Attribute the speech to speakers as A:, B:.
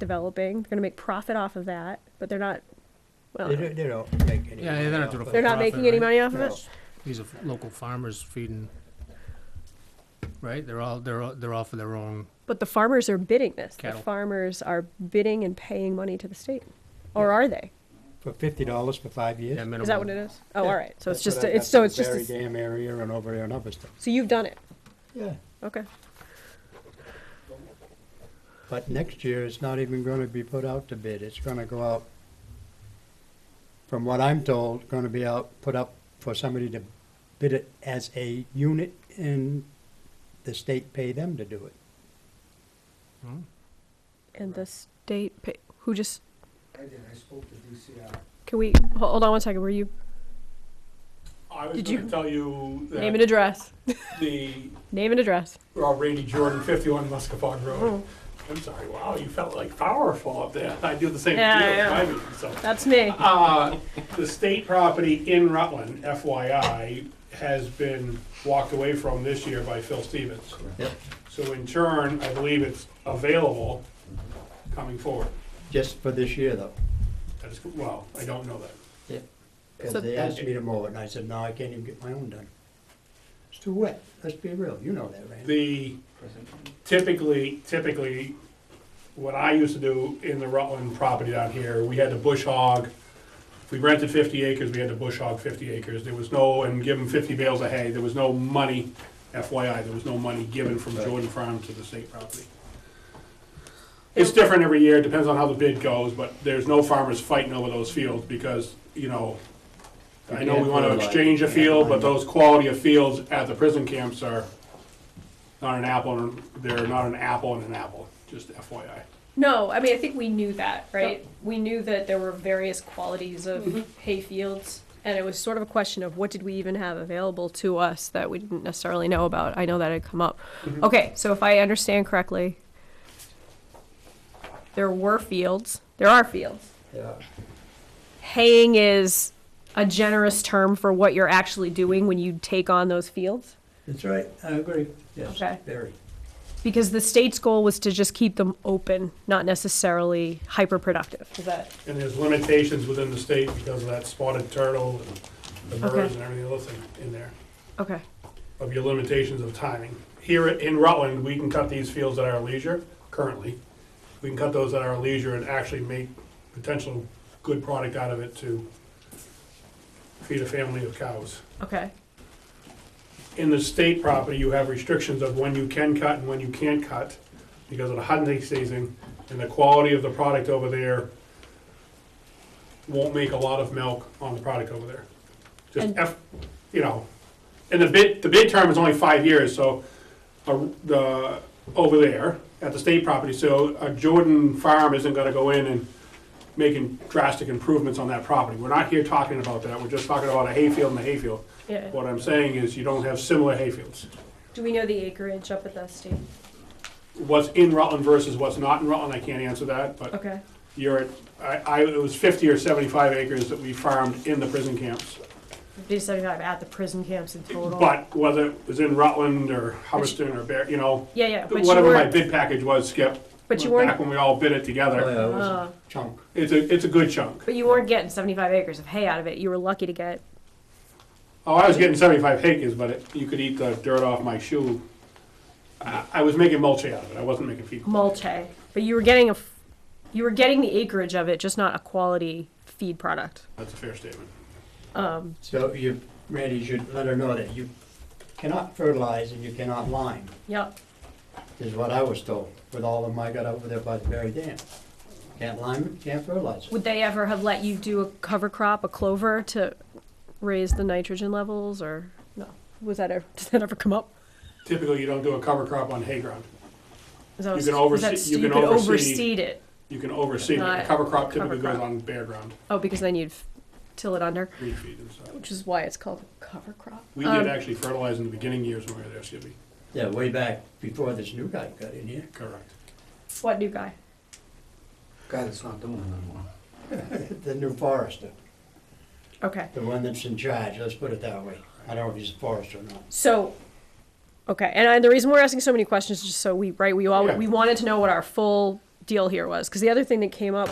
A: developing. They're going to make profit off of that, but they're not. Well,
B: They don't, they don't make any.
C: Yeah, they're not
B: money
C: doing a
B: off
A: they're
B: it.
A: not
C: Profit,
A: making any
C: right?
A: money off of
B: No.
A: it.
C: These are local farmers feeding, right? They're all, they're all, they're all for their own,
A: But the farmers are bidding this.
C: Cattle.
A: The farmers are bidding and paying money to the state, or are they?
B: For fifty dollars for five years.
C: yeah, minimum.
A: Is that what it is? Oh,
B: Yeah.
A: all right. So it's
B: That's
A: just
B: what I
A: a, it's
B: got
A: so
B: from
A: it's just a
B: Barry
A: s-
B: Dam area and over there and other stuff.
A: so you've done it.
B: Yeah,
A: Okay.
B: but next year it's not even gonna be put out to bid. It's gonna go out, from what I'm told, gonna be out, put up for somebody to bid it as a unit and the state pay them to do it.
C: Hmm?
A: And the state pay, who just
D: I did, I spoke to DCR.
A: can we ho- hold on one second? Were you
E: I was
A: Did
E: going
A: you-
E: to tell you
A: name and
E: that
A: address?
E: the
A: Name and address.
E: uh, Randy Jordan, 51 Muscatog Road.
A: Mm-hmm.
E: I'm sorry, wow, you felt like powerful up there. I do the same
A: Yeah,
E: deal with
A: yeah.
E: my meetings, so.
A: That's me.
E: Uh, The state property in Rutland, FYI, has been walked away from this year by Phil Stevens.
B: Yep.
E: So in turn, I believe it's available coming forward.
B: Just for this year though.
E: That is, well, I don't know that.
B: Because
A: So-
B: they asked me to mow it, and I said, no, I can't even get my own done. It's too wet, let's be real, you know that, Randy.
E: The typically, typically, what I used to do in the Rutland property down here, we had to bush hog. If we rented fifty acres, we had to bush hog fifty acres. There was no, and give them fifty bales of hay. There was no money, FYI, there was no money given from Jordan Farm to the state property. It's different every year, It depends on how the bid goes, but there's no farmers fighting over those fields because, you know, I know we wanna exchange a field, but those quality of fields at the prison camps are not an apple, and they're not an apple and an apple, just FYI.
F: No, I mean, I think we knew that, right? We knew that there were various qualities of hay fields.
A: And it was sort of a question of what did we even have available to us that we didn't necessarily know about. I know that had come up. Okay, so if I understand correctly, there were fields. There are fields.
B: Yeah.
A: Haying is a generous term for what you're actually doing when you take on those fields
B: That's right, I agree, yes,
A: Okay.
B: very.
A: because the state's goal was to just keep them open, not necessarily hyper productive. Is that
E: And there's limitations within the state because of that spotted turtle and the birds and everything else in- in there,
A: okay?
E: of your limitations of timing. Here in Rutland, we can cut these fields at our leisure, currently. We can cut those at our leisure and actually make potential good product out of it to feed a family of cows.
A: Okay.
E: in the state property, you have restrictions of when you can cut and when you can't cut because of the hunting season and the quality of the product over there won't make a lot of milk on the product over there. Just
A: And-
E: F, you know, and the bid, the bid term is only five years, so uh, the, over there at the state property, so a Jordan farm isn't gonna go in and making drastic improvements on that property. We're not here talking about that, we're just talking about a hayfield and a hayfield.
A: Yeah.
E: What I'm saying is you don't have similar hayfields.
A: Do we know the acreage up at the state?
E: What's in Rutland versus what's not in Rutland, I can't answer that, but
A: Okay.
E: you're at, I, I, it was fifty or seventy-five acres that we farmed in the prison camps.
A: Fifty to seventy-five at the prison camps in total.
E: But whether it was in Rutland or Hubbardston or Bear, you know,
A: yeah, yeah. But you
E: whatever my
A: weren't.
E: bid package was, Skip.
A: But you
E: Back
A: weren't.
E: when we all bid it together,
B: it was a
A: Uh,
B: Chunk,
E: it's a, it's a good chunk.
A: but you weren't getting seventy-five acres of hay out of it. You were lucky to get.
E: Oh, I was getting seventy-five acres, but it, you could eat the dirt off my shoe. I, I was making mulch out of it, I wasn't making feed.
A: mulch hay, but you were getting a, f- you were getting the acreage of it, just not a quality feed product.
E: That's a fair statement.
B: so you, Randy, you should let her know that you cannot fertilize and you cannot lime,
A: Yep.
B: is what I was told, with all of them I got over there by the Berry Dam. Can't lime it, can't fertilize it.
A: Would they ever have let you do a cover crop, a clover, to raise the nitrogen levels, or no? Was that ever? Did that ever come up?
E: Typically, you don't do a cover crop on hay ground.
A: Was that,
E: You can
A: was that
E: oversee-
A: st-
E: you
A: you
E: can
A: could
E: oversee-
A: overseed it.
E: You can oversee, but
A: Not
E: a cover
A: cover
E: crop typically goes
A: crop.
E: on bare ground,
A: Oh, because then you'd f- till it under,
E: green feed and stuff.
A: which is why it's called a cover crop.
E: We
A: Mm. Um,
E: did actually fertilize in the beginning years when we were there, Skippy.
B: Yeah, way back before this new guy got in here.
E: Correct.
A: What new guy?
D: Guy that's not doing it anymore.
B: The new forester,
A: Okay.
B: the one that's in charge, let's put it that way. I don't know if he's a forester or not.
A: So, okay, and I, the reason we're asking so many questions is just so we, right, we all,
E: Yeah.
A: we wanted to know what our full deal here was, because the other thing that came up